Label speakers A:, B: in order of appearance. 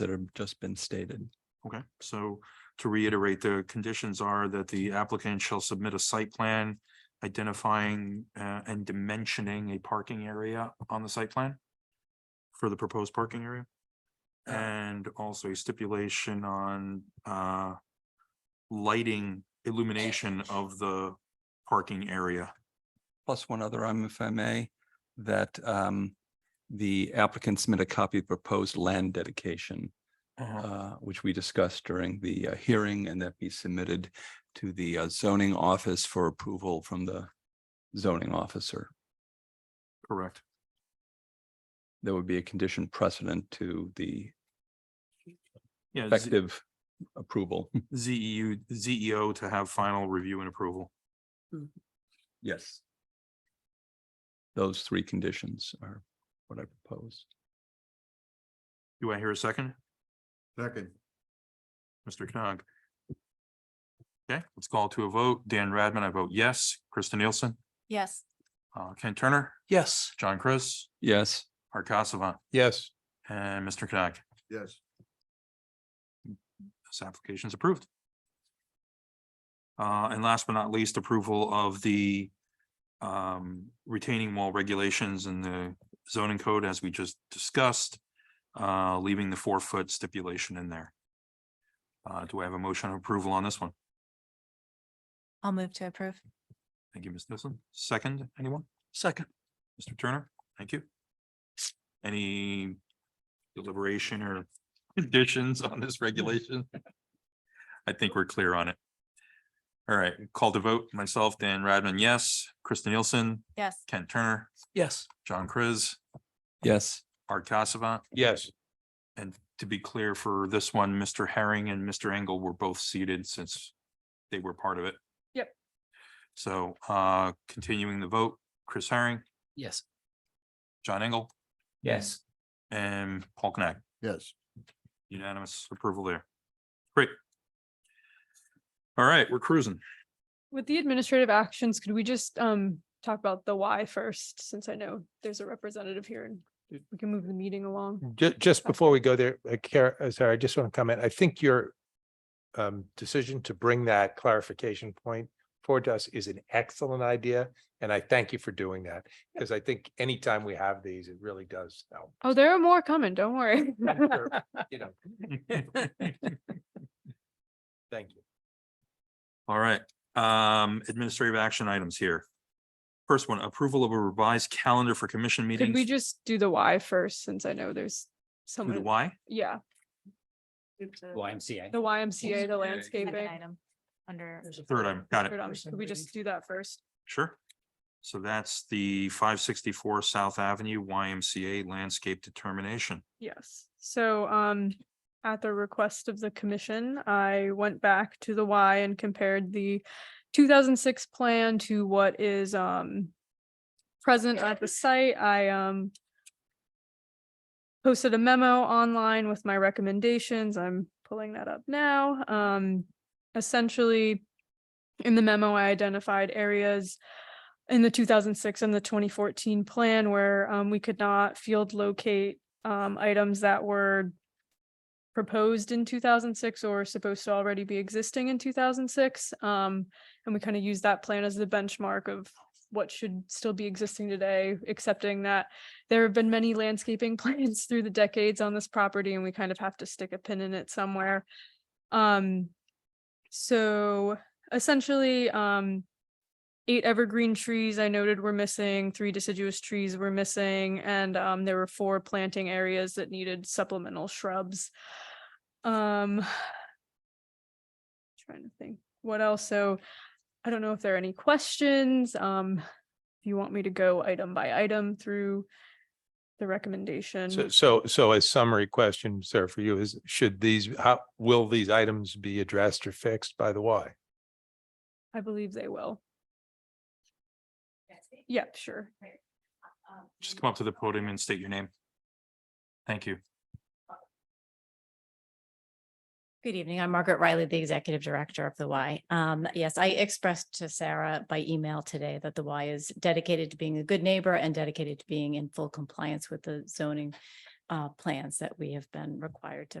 A: that have just been stated.
B: Okay, so to reiterate, the conditions are that the applicant shall submit a site plan identifying uh, and dimensioning a parking area on the site plan for the proposed parking area. And also a stipulation on uh lighting illumination of the parking area.
A: Plus one other, item, if I may, that um, the applicant submit a copy of proposed land dedication, uh, which we discussed during the uh, hearing and that be submitted to the uh, zoning office for approval from the zoning officer.
B: Correct.
A: There would be a condition precedent to the
B: Yeah, E Z-
A: effective approval.
B: ZEU, ZEO to have final review and approval.
A: Yes. Those three conditions are what I propose.
B: Do I hear a second?
C: Second,
B: Mr. Cog. Okay, let's call to a vote. Dan Radman, I vote yes. Krista Nielsen,
D: Yes.
B: uh, Ken Turner,
E: Yes.
B: John Chris,
A: Yes,
B: Art Casavant,
E: Yes.
B: and Mr. Cog.
C: yes.
B: This application is approved. Uh, and last but not least, approval of the um, retaining wall regulations and the zoning code as we just discussed, uh, leaving the four foot stipulation in there. Uh, do I have a motion of approval on this one?
D: I'll move to approve.
B: Thank you, Ms. Nielsen. Second, anyone?
E: Second.
B: Mr. Turner, thank you. Any deliberation or conditions on this regulation? I think we're clear on it. All right, call to vote, myself, Dan Radman, yes, Krista Nielsen,
D: Yes.
B: Kent Turner,
E: Yes.
B: John Chris,
A: yes,
B: Art Casavant.
E: Yes.
B: And to be clear for this one, Mr. Herring and Mr. Engel were both seated since they were part of it.
E: Yep.
B: So uh continuing the vote, Chris Herring,
E: Yes.
B: John Engel,
E: Yes.
B: and Paul Knack.
C: Yes.
B: Unanimous approval there. Great. All right, we're cruising.
F: With the administrative actions, could we just um talk about the why first, since I know there's a representative here and we can move the meeting along?
G: Ju- just before we go there, uh, Kara, uh, sorry, I just want to comment. I think your um, decision to bring that clarification point forward to us is an excellent idea, and I thank you for doing that, because I think anytime we have these, it really does help.
F: Oh, there are more coming, don't worry.
G: You know, thank you.
B: All right, um, administrative action items here. First one, approval of a revised calendar for commission
F: Could we
B: meetings.
F: just do the why first, since I know there's
B: Do the
F: someone,
B: Why?
F: yeah,
E: YMCA.
F: the YMCA, the landscaping.
D: Item under,
B: Third item, got it,
F: Third option. Could we just do that first?
B: sure. So that's the five sixty-four South Avenue YMCA landscape determination.
F: Yes, so um, at the request of the commission, I went back to the Y and compared the two thousand six plan to what is um present at the site. I um posted a memo online with my recommendations. I'm pulling that up now. Um, essentially, in the memo, I identified areas in the two thousand six and the twenty fourteen plan where um we could not field locate um, items that were proposed in two thousand six or supposed to already be existing in two thousand six. Um, and we kind of use that plan as the benchmark of what should still be existing today, accepting that there have been many landscaping plans through the decades on this property and we kind of have to stick a pin in it somewhere. Um, so essentially, um, eight evergreen trees I noted were missing, three deciduous trees were missing, and um, there were four planting areas that needed supplemental shrubs. Um, trying to think what else. So I don't know if there are any questions. Um, if you want me to go item by item through the recommendation.
G: So, so, so a summary question, sir, for you is, should these, how, will these items be addressed or fixed by the Y?
F: I believe they will. Yeah, sure.
B: Just come up to the podium and state your name. Thank you.
D: good evening. I'm Margaret Riley, the Executive Director of the Y. Um, yes, I expressed to Sarah by email today that the Y is dedicated to being a good neighbor and dedicated to being in full compliance with the zoning uh, plans that we have been required to